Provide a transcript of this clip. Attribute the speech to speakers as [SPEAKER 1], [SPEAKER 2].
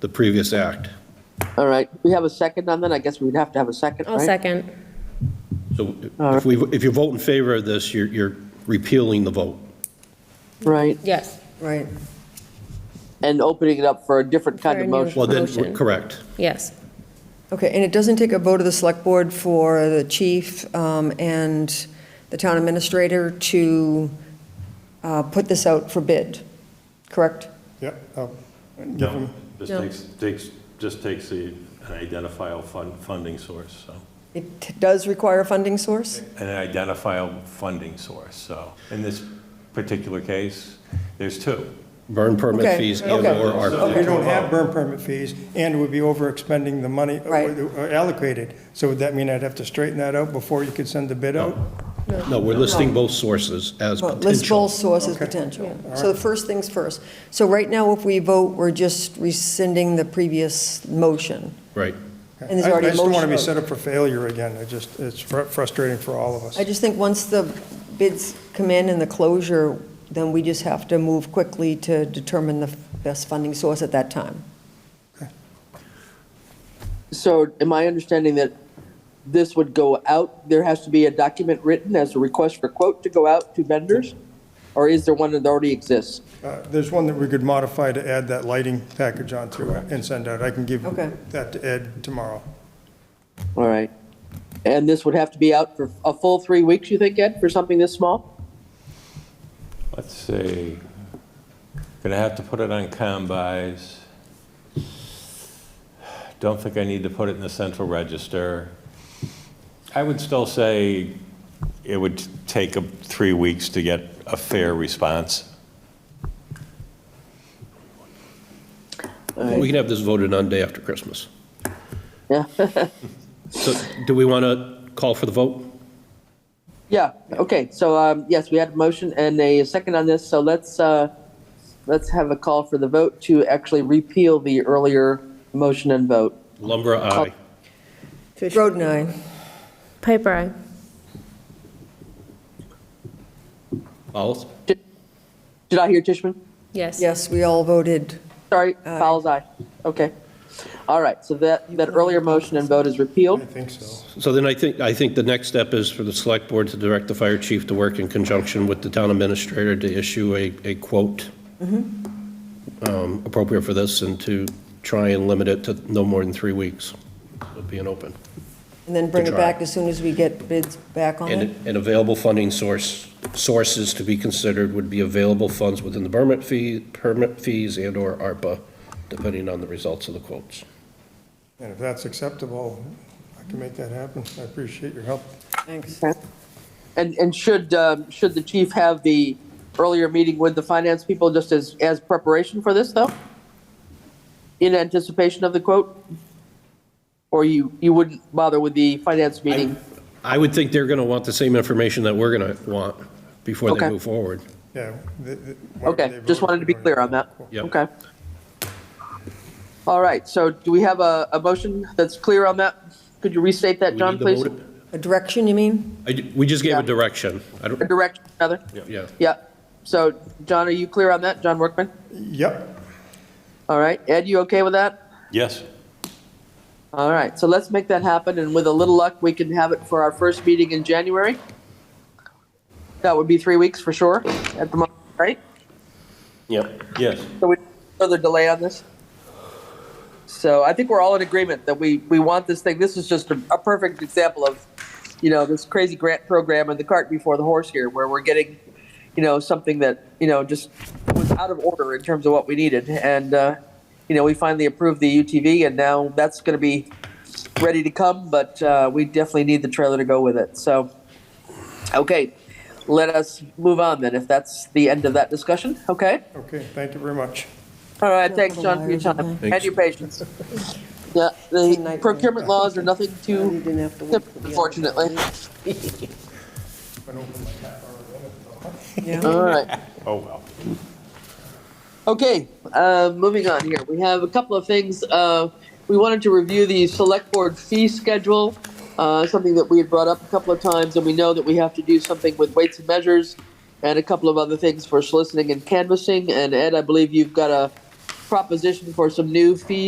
[SPEAKER 1] the previous act.
[SPEAKER 2] All right, we have a second on that, I guess we'd have to have a second,
[SPEAKER 3] I'll
[SPEAKER 2] right?
[SPEAKER 3] second.
[SPEAKER 1] So if we, if you vote in favor of this, you're, you're repealing the vote.
[SPEAKER 2] Right,
[SPEAKER 3] Yes,
[SPEAKER 4] Right.
[SPEAKER 2] and opening it up for a different kind
[SPEAKER 3] For a
[SPEAKER 2] of
[SPEAKER 3] new-
[SPEAKER 2] motion.
[SPEAKER 1] Well, then,
[SPEAKER 3] Motion.
[SPEAKER 1] correct.
[SPEAKER 3] yes.
[SPEAKER 4] Okay, and it doesn't take a vote of the select board for the chief um, and the town administrator to uh, put this out for bid, correct?
[SPEAKER 5] Yep, oh,
[SPEAKER 6] No, this
[SPEAKER 3] No.
[SPEAKER 6] takes, takes, just takes the, an identifiable fun, funding source, so.
[SPEAKER 4] It t- does require a funding source?
[SPEAKER 6] An identifiable funding source, so. In this particular case, there's two.
[SPEAKER 1] Burn permit
[SPEAKER 4] Okay,
[SPEAKER 1] fees and
[SPEAKER 4] okay.
[SPEAKER 1] or ARPA.
[SPEAKER 5] we don't have burn permit fees, and we'd be over expending the money uh,
[SPEAKER 4] Right.
[SPEAKER 5] allocated. So would that mean I'd have to straighten that out before you could send the bid out?
[SPEAKER 1] No, we're listing both sources as
[SPEAKER 4] Oh. Well, List both
[SPEAKER 1] potential.
[SPEAKER 4] sources potential. So the first things first. So right now, if we vote, we're just rescinding the previous motion.
[SPEAKER 1] Right.
[SPEAKER 4] And there's already
[SPEAKER 5] I
[SPEAKER 4] a
[SPEAKER 5] I just don't want to
[SPEAKER 4] motion
[SPEAKER 5] be
[SPEAKER 4] out.
[SPEAKER 5] set up for failure again, I just, it's fr- frustrating for all of us.
[SPEAKER 4] I just think once the bids come in and the closure, then we just have to move quickly to determine the best funding source at that time.
[SPEAKER 2] So am I understanding that this would go out, there has to be a document written as a request for quote to go out to vendors? Or is there one that already exists?
[SPEAKER 5] Uh, There's one that we could modify to add that lighting package onto it and send out, I can give
[SPEAKER 4] Okay.
[SPEAKER 5] that to Ed tomorrow.
[SPEAKER 2] All right, and this would have to be out for a full three weeks, you think, Ed, for something this small?
[SPEAKER 6] Let's see, gonna have to put it on combis. Don't think I need to put it in the central register. I would still say it would take uh, three weeks to get a fair response.
[SPEAKER 1] We can have this voted on day after Christmas.
[SPEAKER 2] Yeah,
[SPEAKER 1] So do we want to call for the vote?
[SPEAKER 2] yeah, okay, so, um, yes, we had a motion and a second on this, so let's, uh, let's have a call for the vote to actually repeal the earlier motion and vote.
[SPEAKER 1] Lumber, aye.
[SPEAKER 4] Groden, aye.
[SPEAKER 3] Piper, aye.
[SPEAKER 1] Follows?
[SPEAKER 2] Did I hear Tishman?
[SPEAKER 3] Yes.
[SPEAKER 4] Yes, we all voted.
[SPEAKER 2] Sorry, Fowles, aye. Okay. All right, so that, that earlier motion and vote is
[SPEAKER 5] I
[SPEAKER 2] repealed.
[SPEAKER 5] think so.
[SPEAKER 1] So then I think, I think the next step is for the select board to direct the fire chief to work in conjunction with the town administrator to issue a, a quote
[SPEAKER 2] Mm-hmm.
[SPEAKER 1] um, appropriate for this and to try and limit it to no more than three weeks of being open.
[SPEAKER 4] And then bring
[SPEAKER 1] Good
[SPEAKER 4] it
[SPEAKER 1] try.
[SPEAKER 4] back as soon as we get bids back on
[SPEAKER 1] And,
[SPEAKER 4] it.
[SPEAKER 1] and available funding source, sources to be considered would be available funds within the permit fee, permit fees and/or ARPA, depending on the results of the quotes.
[SPEAKER 5] And if that's acceptable, I can make that happen. I appreciate your help.
[SPEAKER 4] Thanks.
[SPEAKER 2] And, and should, um, should the chief have the earlier meeting with the finance people just as, as preparation for this, though? In anticipation of the quote? Or you, you wouldn't bother with the finance meeting?
[SPEAKER 1] I would think they're going to want the same information that we're going to want before they
[SPEAKER 2] Okay. Uh,
[SPEAKER 1] move forward.
[SPEAKER 5] Yeah. the- the- whatever
[SPEAKER 2] Okay,
[SPEAKER 5] they
[SPEAKER 2] just
[SPEAKER 5] voted
[SPEAKER 2] wanted to be
[SPEAKER 5] on.
[SPEAKER 2] clear on that.
[SPEAKER 1] Yep.
[SPEAKER 2] Okay. All right, so do we have a, a motion that's clear on that? Could you restate that,
[SPEAKER 1] We
[SPEAKER 2] John,
[SPEAKER 1] need to
[SPEAKER 2] please?
[SPEAKER 1] vote it.
[SPEAKER 4] A direction, you mean?
[SPEAKER 1] I ju- We just gave
[SPEAKER 2] Yeah.
[SPEAKER 1] a direction. I
[SPEAKER 2] A
[SPEAKER 1] don't,
[SPEAKER 2] Direct, another?
[SPEAKER 1] yeah.
[SPEAKER 2] Yeah, so, John, are you clear on that? John Workman?
[SPEAKER 5] Yep.
[SPEAKER 2] All right, Ed, you okay with that?
[SPEAKER 6] Yes?
[SPEAKER 2] All right, so let's make that happen, and with a little luck, we can have it for our first meeting in January. That would be three weeks for sure, at the moment, right?
[SPEAKER 1] Yep.
[SPEAKER 6] Yes.
[SPEAKER 2] So we, further delay on this? So I think we're all in agreement that we, we want this thing, this is just a, a perfect example of, you know, this crazy grant program and the cart before the horse here, where we're getting, you know, something that, you know, just was out of order in terms of what we needed, and, uh, you know, we finally approved the UTV, and now that's gonna be ready to come, but, uh, we definitely need the trailer to go with it, so. Okay, let us move on then, if that's the end of that discussion, okay?
[SPEAKER 5] Okay, thank you very much.
[SPEAKER 2] All right, thanks,
[SPEAKER 4] little
[SPEAKER 2] John, for your
[SPEAKER 4] wires in
[SPEAKER 2] time
[SPEAKER 1] there.
[SPEAKER 2] and your patience. Yeah, the
[SPEAKER 4] nightmare.
[SPEAKER 2] procurement laws are nothing too, unfortunately.
[SPEAKER 4] Yeah.
[SPEAKER 2] All right.
[SPEAKER 6] Oh, well.
[SPEAKER 2] Okay, uh, moving on here. We have a couple of things. Uh, we wanted to review the select board fee schedule, uh, something that we had brought up a couple of times, and we know that we have to do something with weights and measures and a couple of other things for soliciting and canvassing. And Ed, I believe you've got a proposition for some new fees